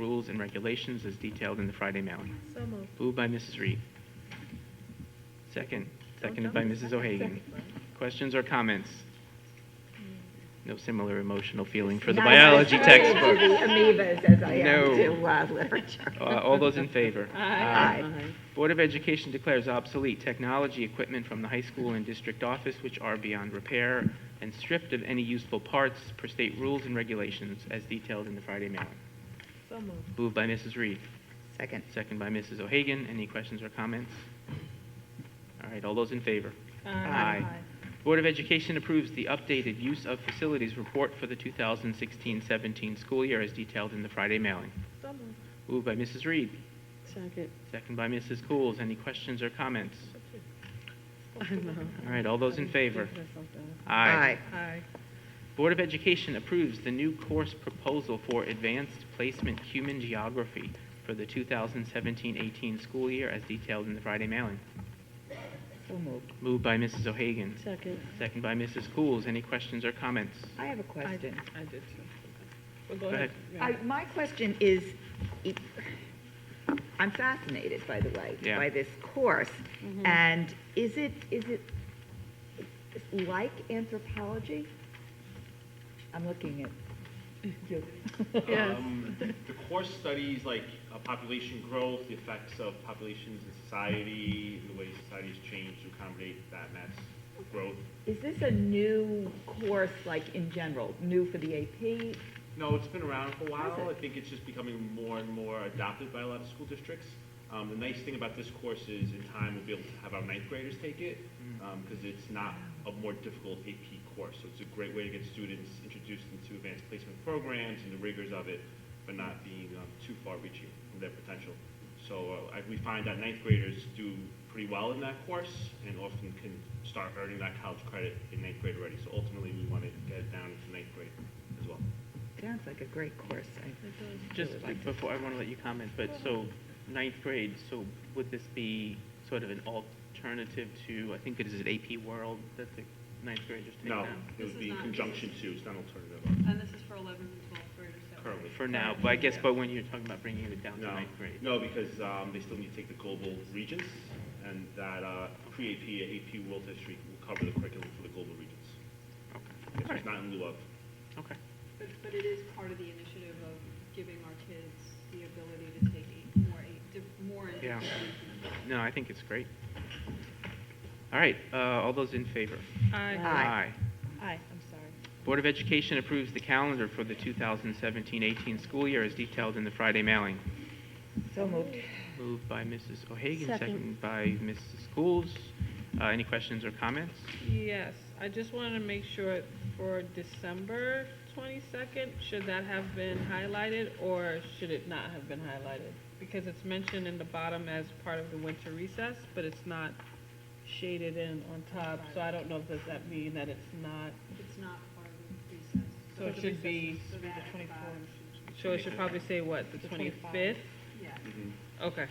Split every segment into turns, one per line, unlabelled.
rules and regulations as detailed in the Friday mailing.
So moved.
Moved by Mrs. Reed. Second, seconded by Mrs. O'Hagan. Questions or comments? No similar emotional feeling for the
Not as
biology
attracted to
textbook.
the amoebas as I
No.
am to uh, literature.
Uh, All those in favor?
Aye.
Board of Education declares obsolete technology equipment from the high school and district office which are beyond repair and stripped of any useful parts per state rules and regulations as detailed in the Friday mailing.
So moved.
Moved by Mrs. Reed.
Second.
Second by Mrs. O'Hagan. Any questions or comments? All right, all those in favor?
Aye.
Board of Education approves the updated use of facilities report for the 2016-17 school year as detailed in the Friday mailing.
So moved.
Moved by Mrs. Reed,
Second.
second by Mrs. Coles. Any questions or comments? All right, all those in favor?
Aye.
Aye.
Board of Education approves the new course proposal for Advanced Placement Human Geography for the 2017-18 school year as detailed in the Friday mailing.
So moved.
Moved by Mrs. O'Hagan,
Second.
second by Mrs. Coles. Any questions or comments?
I have a question.
I did too.
Go ahead.
I, my question is, it- I'm fascinated, by the way,
Yeah.
by this course.
Mm-hmm.
And is it, is it like anthropology? I'm looking at you.
Yes.
Um, The course studies like uh, population growth, the effects of populations in society, the way society has changed to accommodate that mass growth.
Is this a new course, like in general, new for the AP?
No, it's been around for a while.
Has it?
I think it's just becoming more and more adopted by a lot of school districts. Um, The nice thing about this course is in time we'll be able to have our ninth graders take it because um, it's not a more difficult AP course. So it's a great way to get students introduced into advanced placement programs and the rigors of it, but not being um, too far-reaching from their potential. So uh, I- we find that ninth graders do pretty well in that course and often can start earning that college credit in ninth grade already. So ultimately, we want to get it down to ninth grade as well.
Sounds like a great course. I-
Just before, I want to let you comment, but so ninth grade, so would this be sort of an alternative to, I think it is an AP World that the ninth graders take now?
No, it would
This
be
is
in
not-
conjunction to, it's not alternative
And this is for 11th and 12th graders. so-
currently.
For now, but I guess, but when you're talking about bringing it down to
No,
ninth grade.
no, because um, they still need to take the global regions, and that uh, pre-AP, AP World History will cover the curriculum for the global regions.
Okay,
So
all right,
It's not in lieu of.
okay.
But but it is part of the initiative of giving our kids the ability to take eight- more, eight- di- more in
Yeah.
different regions.
No, I think it's great. All right, uh, all those in favor?
Aye.
Aye.
Aye, I'm sorry.
Board of Education approves the calendar for the 2017-18 school year as detailed in the Friday mailing.
So moved.
Moved by Mrs. O'Hagan,
Second.
seconded by Mrs. Schools. Uh, Any questions or comments?
Yes, I just wanted to make sure for December twenty-second, should that have been highlighted or should it not have been highlighted? Because it's mentioned in the bottom as part of the winter recess, but it's not shaded in on top, so I don't know, does that mean that it's not,
It's not part of the recess.
So it should be-
So that five should-
so it should probably say what, the twenty-fifth?
Yeah.
Mm-hmm.
Okay.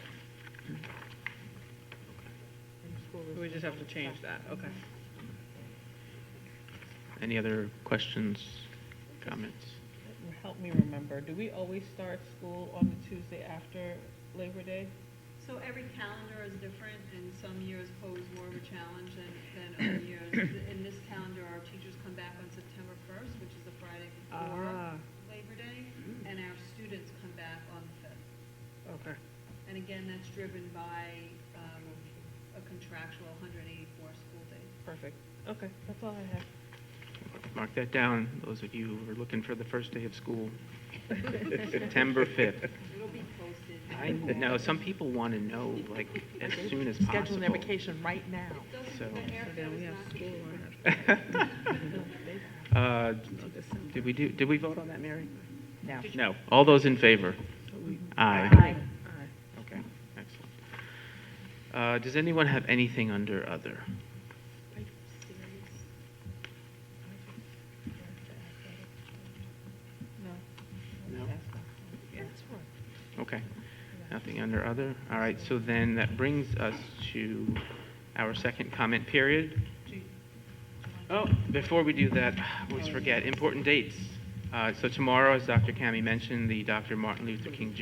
We just have to change that, okay.
Any other questions, comments?
Help me remember, do we always start school on the Tuesday after Labor Day?
So every calendar is different, and some years pose more of a challenge than, than other years. In this calendar, our teachers come back on September 1st, which is the Friday before
Ah.
Labor Day, and our students come back on the 5th.
Okay.
And again, that's driven by um, a contractual 184 school days.
Perfect. Okay, that's all I have.
Mark that down, those of you who are looking for the first day of school, September 5th.
It'll be posted.
I know, some people want to know, like, as soon as possible.
Scheduling their vacation right now.
So-
Doesn't, the haircut is not.
Uh, Did we do, did we vote on that, Mary?
No.
No. All those in favor? Aye.
Aye.
Okay, excellent. Uh, Does anyone have anything under other? No. Okay, nothing under other. All right, so then that brings us to our second comment period. Oh, before we do that, I always forget, important dates. Uh, So tomorrow, as Dr. Kami mentioned, the Dr. Martin Luther King Jr.